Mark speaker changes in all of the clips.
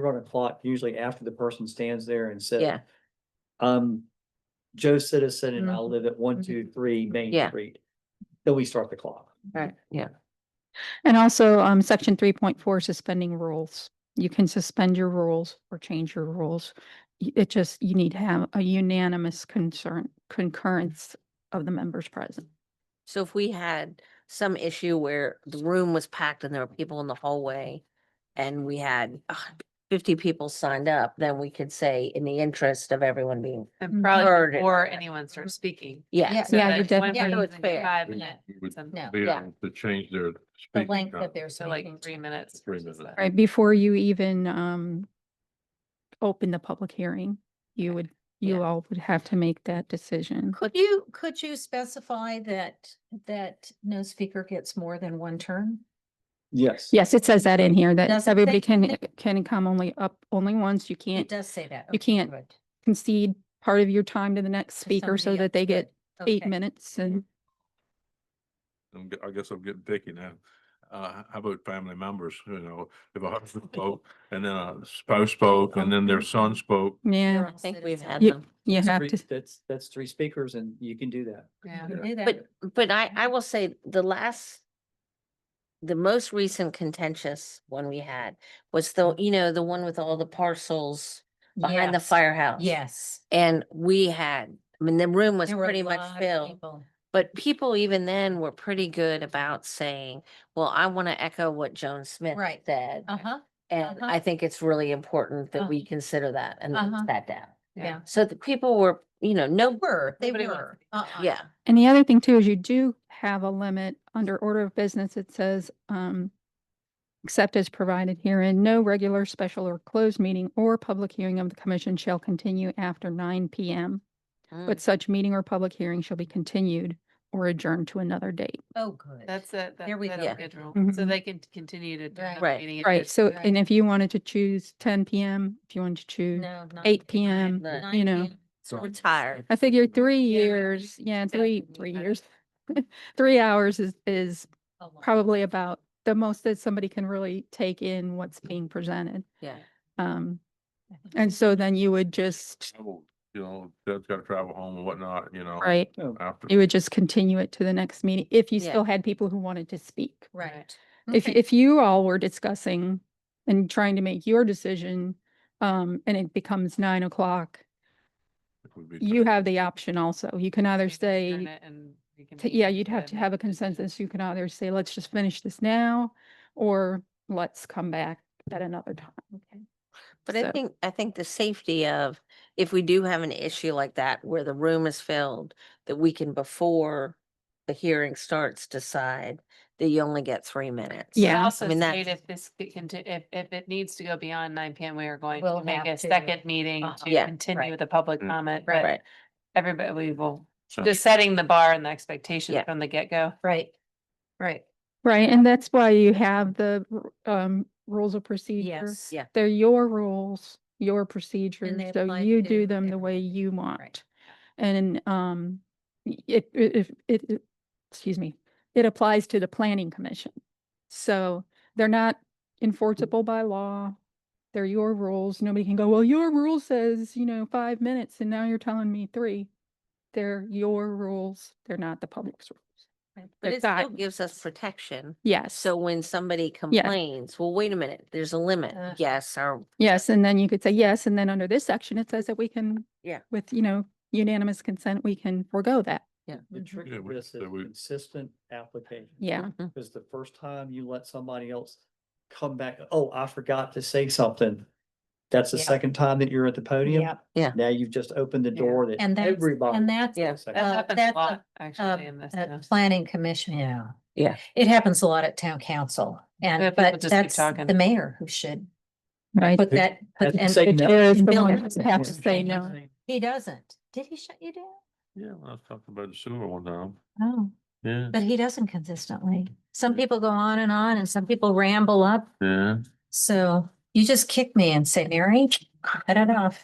Speaker 1: run a clock usually after the person stands there and says.
Speaker 2: Yeah.
Speaker 1: Um, Joe Citizen and I
Speaker 3: Mm-hmm.
Speaker 2: Mhm.
Speaker 1: live at one, two, three Main
Speaker 2: Yeah.
Speaker 1: Street. Then we start the clock.
Speaker 2: Right, yeah.
Speaker 3: And also, um, section three point four, suspending rules. You can suspend your rules or change your rules. Y- It just, you need to have a unanimous concern, concurrence of the members present.
Speaker 2: So if we had some issue where the room was packed and there were people in the hallway and we had ugh, fifty people signed up, then we could say in the interest of everyone being,
Speaker 3: Mhm.
Speaker 4: And probably
Speaker 2: Heard it.
Speaker 4: before anyone starts speaking.
Speaker 2: yeah.
Speaker 3: Yeah, you definitely-
Speaker 4: Yeah,
Speaker 2: Yeah, it's
Speaker 4: it's
Speaker 2: fair.
Speaker 4: Five
Speaker 5: We-
Speaker 4: minutes,
Speaker 5: we would
Speaker 4: some-
Speaker 5: be
Speaker 2: No, yeah.
Speaker 5: able to change their.
Speaker 6: The
Speaker 5: speaking
Speaker 6: length
Speaker 5: time.
Speaker 6: of their.
Speaker 4: so like
Speaker 6: speaking
Speaker 4: three
Speaker 6: time.
Speaker 4: minutes.
Speaker 5: Three
Speaker 4: versus
Speaker 5: minutes.
Speaker 4: that.
Speaker 3: Right, before you even, um, open the public hearing, you would, you
Speaker 2: Yeah.
Speaker 3: all would have to make that decision.
Speaker 6: Could you, could you specify that, that no speaker gets more than one turn?
Speaker 1: Yes.
Speaker 3: Yes, it says that in here,
Speaker 6: Does it
Speaker 3: that
Speaker 6: say-
Speaker 3: everybody can, can come only up, only once. You
Speaker 6: It
Speaker 3: can't
Speaker 6: does say that.
Speaker 3: you
Speaker 6: Okay,
Speaker 3: can't
Speaker 6: good. To
Speaker 3: concede part of your time to the next speaker so
Speaker 6: somebody
Speaker 3: that they
Speaker 6: else, good.
Speaker 3: get eight
Speaker 6: Okay.
Speaker 3: minutes and
Speaker 5: I'm g- I guess I'm getting picky now. Uh, how about family members, you know, if a husband spoke and then a spouse spoke and then their son spoke.
Speaker 3: Yeah,
Speaker 6: You're
Speaker 2: I think we've
Speaker 6: citizen.
Speaker 2: had
Speaker 3: You-
Speaker 2: them.
Speaker 3: you
Speaker 1: That's
Speaker 3: have
Speaker 1: three-
Speaker 3: to,
Speaker 1: That's, that's three speakers and you can do that.
Speaker 4: Yeah.
Speaker 6: I knew that.
Speaker 2: But, but I,
Speaker 6: Mm-hmm.
Speaker 2: I will say the last, the most recent contentious one we had was the, you know, the one with all the parcels behind the
Speaker 6: Yes,
Speaker 2: firehouse.
Speaker 6: Yes.
Speaker 2: And we had, I mean, the room was
Speaker 6: There were a
Speaker 2: pretty
Speaker 6: lot
Speaker 2: much
Speaker 6: of
Speaker 2: filled.
Speaker 6: people.
Speaker 2: But people even then were pretty good about saying, well, I want to echo what Joan Smith
Speaker 6: Right.
Speaker 2: said.
Speaker 6: Uh-huh,
Speaker 2: And
Speaker 6: uh-huh.
Speaker 2: I think it's really important that
Speaker 6: Uh-huh.
Speaker 2: we consider that and
Speaker 6: Uh-huh.
Speaker 2: that down.
Speaker 6: yeah.
Speaker 2: So the people were, you know, no,
Speaker 6: Were, they
Speaker 4: Nobody wants
Speaker 6: were.
Speaker 4: to be
Speaker 6: Uh-uh.
Speaker 2: yeah,
Speaker 3: and the other thing too is you do have a limit under order of business. It says, um, except as provided herein, no regular, special or closed meeting or public hearing of the commission shall continue after nine PM. But
Speaker 2: Mm,
Speaker 3: such meeting or public hearing shall be continued or adjourned to another date.
Speaker 6: Oh, good.
Speaker 4: That's it.
Speaker 6: There we
Speaker 2: go.
Speaker 4: Schedule, so
Speaker 3: Mhm.
Speaker 4: they can t- continue to. do
Speaker 6: Right.
Speaker 4: another
Speaker 2: Right.
Speaker 4: meeting if
Speaker 3: Right,
Speaker 4: it's-
Speaker 3: so,
Speaker 6: right.
Speaker 3: and if you wanted to choose ten PM, if you wanted to choose,
Speaker 6: No. not-
Speaker 3: 8 PM,
Speaker 6: nine-
Speaker 2: you
Speaker 6: nine
Speaker 3: know.
Speaker 6: PM.
Speaker 5: So-
Speaker 2: Mm. we're tired.
Speaker 3: I figure three
Speaker 4: Yeah, you
Speaker 3: years, yeah,
Speaker 4: that
Speaker 3: three,
Speaker 4: would be
Speaker 3: three
Speaker 4: better.
Speaker 3: years. Three hours is, is
Speaker 6: A lot.
Speaker 3: probably about the most that somebody can really take in what's being presented.
Speaker 2: Yeah.
Speaker 3: Um, and so then you would just,
Speaker 5: travel, You know, dad's got to travel home and whatnot, you know.
Speaker 3: right,
Speaker 1: No,
Speaker 5: After.
Speaker 3: you would just continue it to the next meeting if you
Speaker 2: Yeah.
Speaker 3: still had people who wanted to speak.
Speaker 6: Right.
Speaker 3: If,
Speaker 6: Okay.
Speaker 3: if you all were discussing and trying to make your decision, um, and it becomes nine o'clock,
Speaker 5: it would be
Speaker 3: you have the option also. You can either
Speaker 4: we can adjourn
Speaker 3: say,
Speaker 4: it and we can
Speaker 3: t-
Speaker 4: meet
Speaker 3: Yeah, you'd
Speaker 4: and
Speaker 3: have
Speaker 4: then
Speaker 3: to
Speaker 4: make
Speaker 3: have a
Speaker 4: the decision.
Speaker 3: consensus. You can either say, let's just finish this now, or let's come back at another time. Okay.
Speaker 2: But I
Speaker 3: So-
Speaker 2: think, I think the safety of, if we do have an issue like that where the room is filled, that we can before the hearing starts decide that you only get three minutes.
Speaker 4: But
Speaker 3: Yeah, I
Speaker 4: Also
Speaker 2: mean,
Speaker 4: state
Speaker 2: that's-
Speaker 4: if this, c- conti- if, if it needs to go beyond nine PM, we are going
Speaker 6: We'll
Speaker 4: to make
Speaker 6: have
Speaker 4: a
Speaker 6: to.
Speaker 4: second meeting
Speaker 6: Uh-huh.
Speaker 4: to
Speaker 2: Yeah,
Speaker 4: continue
Speaker 6: right.
Speaker 4: the public
Speaker 5: Mm.
Speaker 4: comment.
Speaker 6: Right.
Speaker 4: but Everybody, we will,
Speaker 5: So-
Speaker 4: just setting the bar and the expectations
Speaker 2: Yeah.
Speaker 4: from the get-go.
Speaker 6: Right, right,
Speaker 3: Right, and that's why you have the r- um rules of procedure.
Speaker 6: yes.
Speaker 2: Yeah.
Speaker 3: They're your rules, your procedures, so
Speaker 6: apply
Speaker 3: you do
Speaker 6: to
Speaker 3: them the
Speaker 6: every-
Speaker 3: way you want. And um, y- it, it, it- it, it- excuse me, it applies to the planning commission. So they're not enforceable by law. They're your rules. Nobody can go, well, your rule says, you know, five minutes and now you're telling me three. They're your rules. They're not the public's rules.
Speaker 2: But
Speaker 3: the
Speaker 2: it still
Speaker 3: guide-
Speaker 2: gives us protection.
Speaker 3: Yes.
Speaker 2: So when somebody complains, well, wait a minute, there's a limit.
Speaker 6: Uh,
Speaker 2: Yes, or
Speaker 3: Yes, and then you could say yes, and then under this section, it says that we can.
Speaker 2: Yeah.
Speaker 3: With, you know, unanimous consent, we can forego that.
Speaker 1: The
Speaker 6: Mhm.
Speaker 1: trick
Speaker 5: Yeah,
Speaker 1: of
Speaker 5: we-
Speaker 1: this is
Speaker 5: so we-
Speaker 1: consistent application.
Speaker 3: Mm-hmm. Yeah.
Speaker 2: Mhm.
Speaker 1: Because the first time you let somebody else come back, oh, I forgot to say something. That's the
Speaker 6: Yep.
Speaker 1: second time that you're at the podium.
Speaker 6: Yep.
Speaker 1: Now you've just opened the
Speaker 4: Yeah.
Speaker 1: door that
Speaker 6: And that's,
Speaker 1: everybody.
Speaker 6: and that's
Speaker 2: Yeah.
Speaker 1: Second.
Speaker 4: That
Speaker 6: Uh,
Speaker 4: happens
Speaker 6: that's
Speaker 4: a
Speaker 6: a-
Speaker 4: lot,
Speaker 6: uh,
Speaker 4: actually, in this.
Speaker 6: a
Speaker 4: now.
Speaker 6: planning commission, yeah.
Speaker 2: Yeah.
Speaker 6: It happens a lot at town council
Speaker 4: Yeah,
Speaker 6: and,
Speaker 4: people
Speaker 6: but
Speaker 4: just keep
Speaker 6: that's
Speaker 4: talking.
Speaker 6: the mayor who should
Speaker 3: Right.
Speaker 6: put
Speaker 1: Who
Speaker 6: that. put-
Speaker 1: hasn't
Speaker 6: and-
Speaker 1: said
Speaker 3: It
Speaker 1: no.
Speaker 3: is
Speaker 6: and
Speaker 3: the
Speaker 6: Bill
Speaker 3: one
Speaker 6: has
Speaker 3: that have to
Speaker 6: that.
Speaker 3: say no.
Speaker 6: He doesn't. Did he shut you down?
Speaker 5: Yeah, I was talking about the sewer one time.
Speaker 6: Oh,
Speaker 5: Yeah,
Speaker 6: but he doesn't consistently. Some people go on and on and some people ramble up.
Speaker 5: yeah.
Speaker 6: So You just kicked me and said, Mary, cut it off.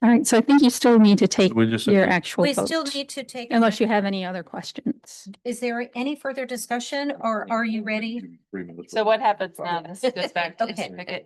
Speaker 3: All right, so I think you still need to take
Speaker 5: We just.
Speaker 3: your actual
Speaker 6: We still
Speaker 3: vote,
Speaker 6: need to take. a
Speaker 3: unless you
Speaker 6: vote.
Speaker 3: have any other questions.
Speaker 6: Is there any further discussion or are you ready?
Speaker 5: Three minutes.
Speaker 4: So what happens now? This goes back to
Speaker 6: Okay.
Speaker 4: Mr. Pickett.